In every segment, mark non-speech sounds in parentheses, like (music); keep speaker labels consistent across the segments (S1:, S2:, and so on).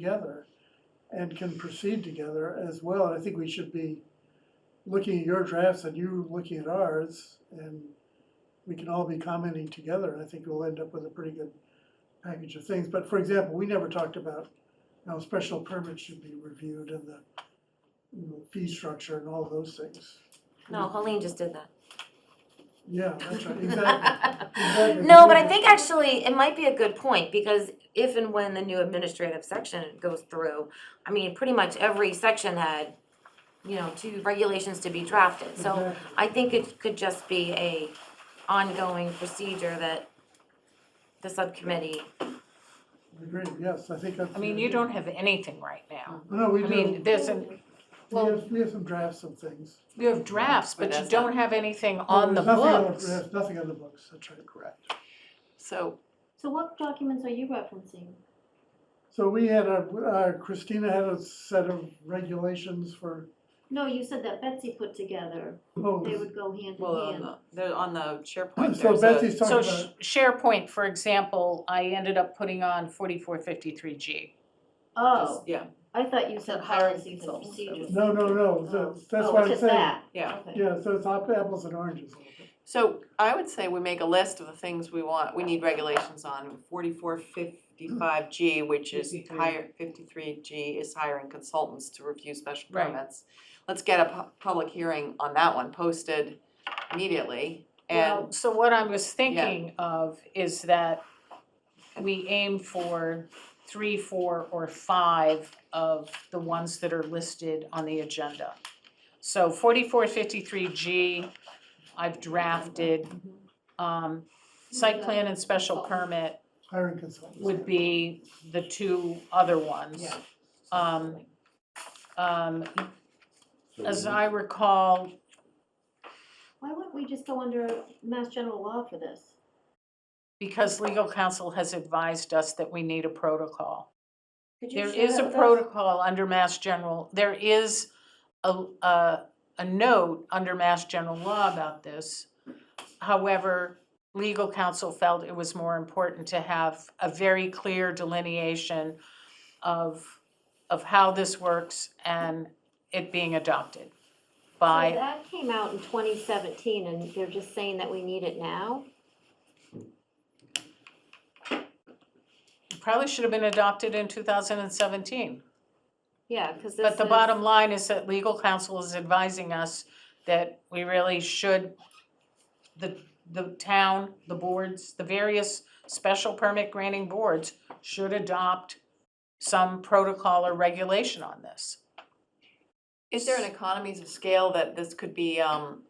S1: together and can proceed together as well. And I think we should be looking at your drafts and you looking at ours, and we can all be commenting together, and I think we'll end up with a pretty good package of things. But for example, we never talked about how special permits should be reviewed and the you know, fee structure and all those things.
S2: No, Helene just did that.
S1: Yeah, that's
S2: (laughs)
S1: right, exactly. Exactly.
S2: No, but I think actually it might be a good point because if and when the new administrative section goes through, I mean, pretty much every section had, you know, two regulations to be drafted. So
S1: Exactly.
S2: I think it could just be a ongoing procedure that the subcommittee,
S1: Agreed, yes, I think that's.
S3: I mean,
S1: the
S3: you
S1: idea.
S3: don't have anything right now.
S1: No, we
S3: I mean,
S1: do,
S3: there's, an-
S1: we
S3: well-
S1: have, we have some drafts of things.
S3: you have drafts, but
S4: But
S3: you
S4: that's not-
S3: don't have anything on the
S1: There's nothing on the-
S3: books.
S1: There's nothing on the books, that's right. Correct.
S3: So,
S5: So what documents are you referencing?
S1: So we had a, uh, Christina had a set of regulations for,
S5: No, you said that Betsy put together,
S1: oh,
S5: they would uh, go hand
S4: Well,
S5: in
S4: on
S5: hand.
S4: the, they're on the SharePoint,
S1: so
S4: there's a,
S1: Betsy's talking
S3: so
S1: about.
S3: Sh- SharePoint, for example, I ended up putting on forty-four fifty-three G.
S5: Oh,
S4: just- yeah,
S5: I thought you said
S4: Hiring
S5: policies and
S4: consultants.
S5: procedures.
S1: No, no, no,
S5: Oh.
S1: that's, that's
S5: Oh,
S1: what I'm
S5: it's just
S1: saying.
S5: that.
S4: yeah.
S5: Okay.
S1: Yeah, so it's op- apples and oranges. a little bit.
S4: So I would say we make a list of the things we want, we need regulations on, forty-four fifty-five G, which is
S3: 53.
S4: hire, fifty-three G is hiring consultants to review special
S3: Right.
S4: permits. Let's get a pu- public hearing on that one posted immediately, and,
S3: So what I was thinking of is that we aim for three, four, or five of the ones that are listed on the agenda. So forty-four fifty-three G, I've drafted.
S5: Mm-hmm.
S3: Um, site plan and special permit
S1: Hiring consultants.
S3: would be the two other ones.
S4: Yeah.
S3: Um, um,
S6: So
S3: as
S6: we-
S3: I recall,
S5: Why wouldn't we just go under Mass General Law for this?
S3: because legal counsel has advised us that we need a protocol.
S2: could you
S3: There
S2: share
S3: is
S2: that
S3: a
S2: with us?
S3: protocol under Mass General, there is a, a, a note under Mass General Law about this. However, legal counsel felt it was more important to have a very clear delineation of, of how this works and it being adopted
S5: So
S3: by,
S5: that came out in twenty seventeen and they're just saying that we need it now?
S3: probably should have been adopted in two thousand and seventeen.
S5: Yeah, cause this
S3: But the
S5: is-
S3: bottom line is that legal counsel is advising us that we really should, the, the town, the boards, the various special permit granting boards should adopt some protocol or regulation on this.
S4: is there an economies of scale that this could be, um,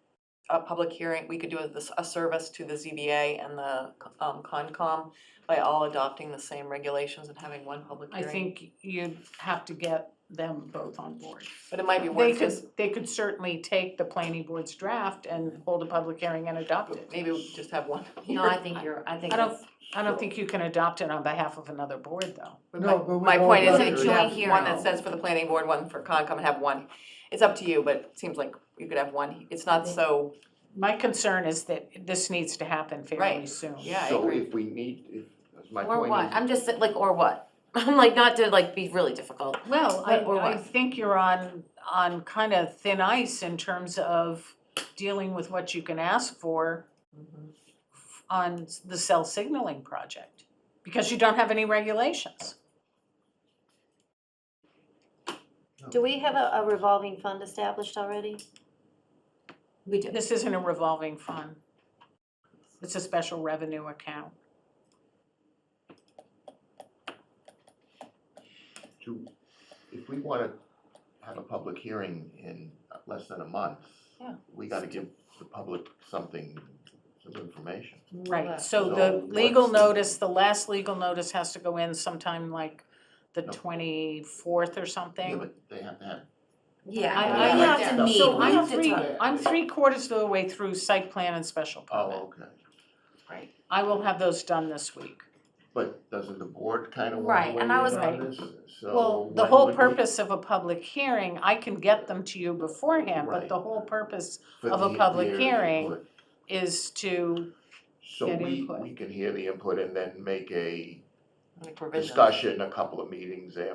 S4: a public hearing, we could do a, a service to the ZBA and the, um, Concom by all adopting the same regulations and having one public
S3: I
S4: hearing?
S3: think you'd have to get them both on board.
S4: But it might be
S3: They could,
S4: worth just,
S3: they could certainly take the planning board's draft and hold a public hearing and adopt it.
S4: maybe we just have one.
S2: (laughs)
S4: (laughs)
S2: No, I think you're, I think
S3: I don't,
S2: it's-
S3: I don't think you can adopt it on behalf of another board, though.
S1: No, but we
S4: My
S1: all
S4: point is
S1: got
S4: that
S1: it.
S4: you have
S2: Joint
S4: one
S2: hearing.
S4: that says for the planning board, one for Concom, and have one. It's up to you, but it seems like you could have one. It's not so,
S3: My concern is that this needs to happen fairly
S4: Right.
S3: soon.
S4: yeah, I
S6: So
S4: agree.
S6: if we need, if, that's my
S2: or
S6: point
S2: what,
S6: is,
S2: I'm just like, or what? (laughs) I'm like, not to like be really difficult.
S3: Well, I,
S2: But- or
S3: I
S2: what?
S3: think you're on, on kind of thin ice in terms of dealing with what you can ask for Mm-hmm.
S4: Mhm.
S3: on the cell signaling project, because you don't have any regulations.
S5: Do we have a, a revolving fund established already?
S2: We do.
S3: This isn't a revolving fund. It's a special revenue account.
S6: to, if we wanna have a public hearing in less than a month,
S4: Yeah.
S6: we gotta give the public something, some information.
S3: Right, so
S6: So
S3: the legal
S6: what's the-
S3: notice, the last legal notice has to go in sometime like the
S6: No.
S3: twenty-fourth or something.
S6: Yeah, but they have to have,
S2: Yeah,
S3: I-
S2: I,
S6: I
S2: we
S6: like
S2: have
S6: that.
S2: to meet,
S3: So
S2: we
S3: I'm
S2: have to
S3: three,
S2: talk.
S3: I'm three quarters of the way through site plan and special permit.
S6: oh, okay,
S3: I will have those done this week.
S6: but doesn't the board kinda
S2: Right,
S6: wanna weigh
S2: and
S6: in
S2: I was-
S6: on this? So
S3: Well, the
S6: when
S3: whole
S6: would we-
S3: purpose of a public hearing, I can get them to you beforehand, but
S6: Right.
S3: the whole purpose
S6: for
S3: of a
S6: the-
S3: public
S6: their
S3: hearing,
S6: input?
S3: is to,
S6: So
S3: get
S6: we,
S3: input.
S6: we can hear the input and then make a
S4: Like provisions.
S6: discussion a couple of meetings after.